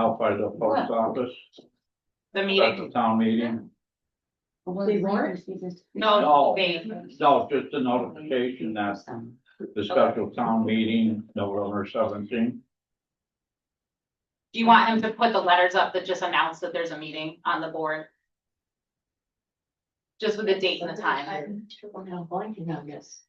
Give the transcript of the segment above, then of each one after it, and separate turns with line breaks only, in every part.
out by the post office,
The
at the
meeting,
town meeting.
They weren't? no,
No,
they,
no, just a notification that the special town meeting, November seventeenth.
do you want him to put the letters up that just announce that there's a meeting on the board? Just with the date and the time.
I'm terrible now blanking on this.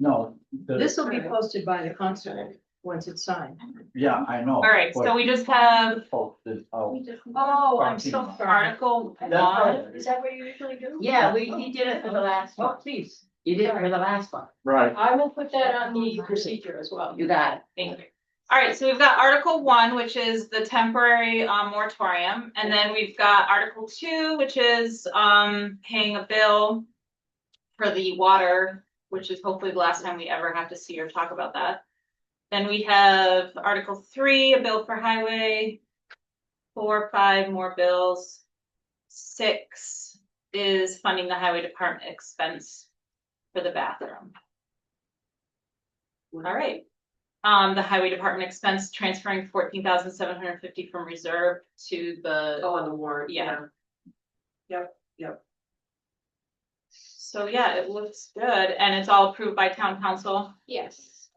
No, the,
This will be posted by the consulate once it's signed.
yeah, I know.
Oh,
All right, so we just have,
Posted out.
Oh,
I'm so
article
That's right.
one,
Is that what you usually do?
Yeah, we, he did it for the last
Oh,
one.
please.
You did it for the last one.
Right,
I will put that on the procedure as well.
You got it.
Thank you. All right, so we've got Article one, which is the temporary um moratorium, and then we've got Article two, which is um paying a bill. For the water, which is hopefully the last time we ever have to see or talk about that. Then we have Article three, a bill for highway. Four, five more bills. Six is funding the highway department expense for the bathroom. All right. Um, the highway department expense transferring fourteen thousand seven hundred fifty from reserve to the,
Oh, on the warrant.
yeah.
Yep, yep.
So yeah, it looks good and it's all approved by town council.
Yes.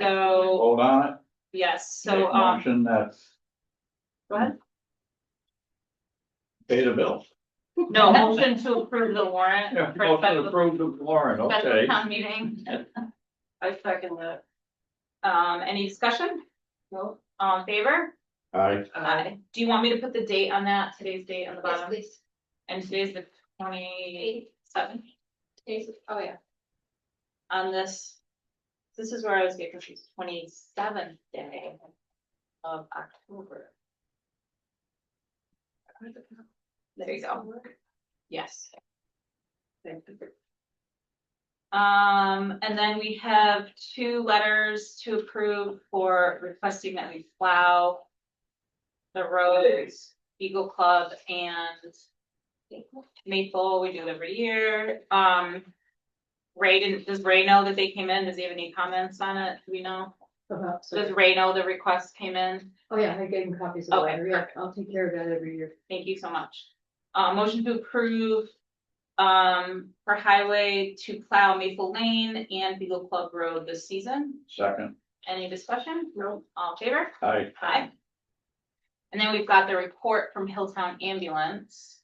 So,
hold on it.
yes,
Make
so, um,
Motion that
go ahead.
pay the bill.
No, motion to approve the warrant
Yeah,
for
motion
special,
approved of Lauren,
special
okay.
town meeting.
I second that.
Um, any discussion?
No.
All in favor?
I,
Aye. Do you want me to put the date on that, today's date on the
Yes,
bottom?
please.
And today's the twenty-seventh
Please. Oh, yeah.
on this. This is where I was getting confused, twenty-seventh day of October. There you go. Yes.
Thank you.
Um, and then we have two letters to approve for requesting that we plow the
Oh,
roads, Eagle Club and Maple, we do it every year. Um, Ray didn't, does Ray know that they came in? Does he have any comments on it? Do we know?
Perhaps.
Does Ray know the request came in?
Uh-huh. Oh, yeah, I gave him copies of the
Okay,
letter. Yeah, I'll take care of that every year.
Thank you so much. Uh, motion to approve, um, for highway to plow Maple Lane and Beagle Club Road this season.
second,
Any discussion?
No.
All in favor?
I,
Aye. And then we've got the report from Hilltown Ambulance.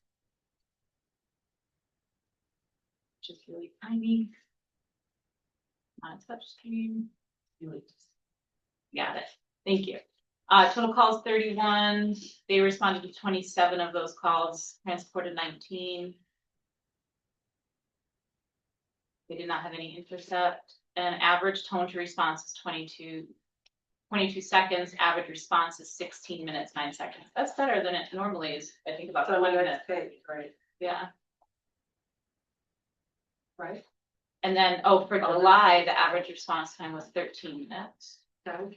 Which is really tiny. Uh, On touchscreen. Really just- Got it. Thank you. Uh, total calls thirty-one. They responded to twenty-seven of those calls, transported nineteen. They did not have any intercept and average tone to response is twenty-two twenty-two seconds, average response is sixteen minutes, nine seconds. That's better than it normally is, I think about
So
twenty
when
minutes,
that's paid, right?
yeah.
Right.
And then, oh, for July, the average response time was thirteen minutes.
Done.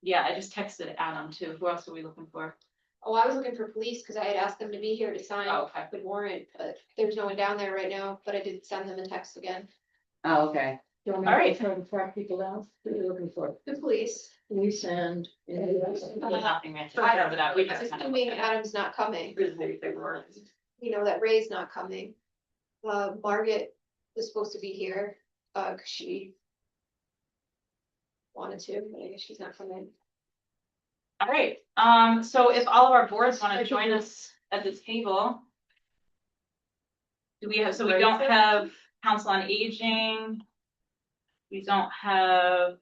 Yeah, I just texted Adam too. Who else are we looking for?
Oh, I was looking for police because I had asked them to be here to sign
Oh, okay.
the warrant, but there's no one down there right now, but I did send them a text again.
Oh, okay.
Do you want
All
me
right.
to try to track people out? Who are you looking for?
The police,
Police and. Uh,
There's nothing right there.
I
Over that, we just kind of
assuming
looked at it.
Adam's not coming,
they weren't.
you know, that Ray's not coming. Uh, Margaret was supposed to be here, uh, 'cause she wanted to, but I guess she's not coming.
All right, um, so if all of our boards want to join us at the table. Do we have, so we don't have council on aging. We don't have.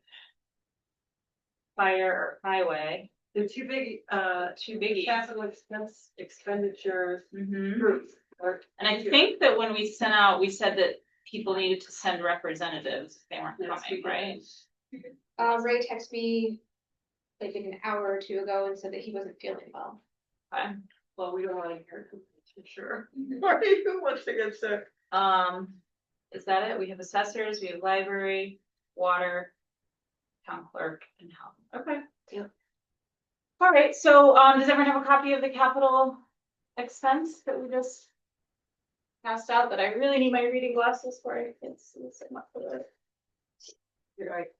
Fire or highway.
The two big, uh,
Two biggies.
capital expense expenditures
Mhm.
groups. or-
And I think that when we sent out, we said that people needed to send representatives if they weren't
Yes, we
coming,
did.
right?
Uh, Ray texted me like an hour or two ago and said that he wasn't feeling well.
Well, we don't wanna hear complaints, for sure. Right, who wants to get sick?
Um, is that it? We have assessors, we have library, water, town clerk and health.
Okay.
All right, so, um, does everyone have a copy of the capital expense that we just passed out that I really need my reading glasses for? I can't see so much of it.
You're right.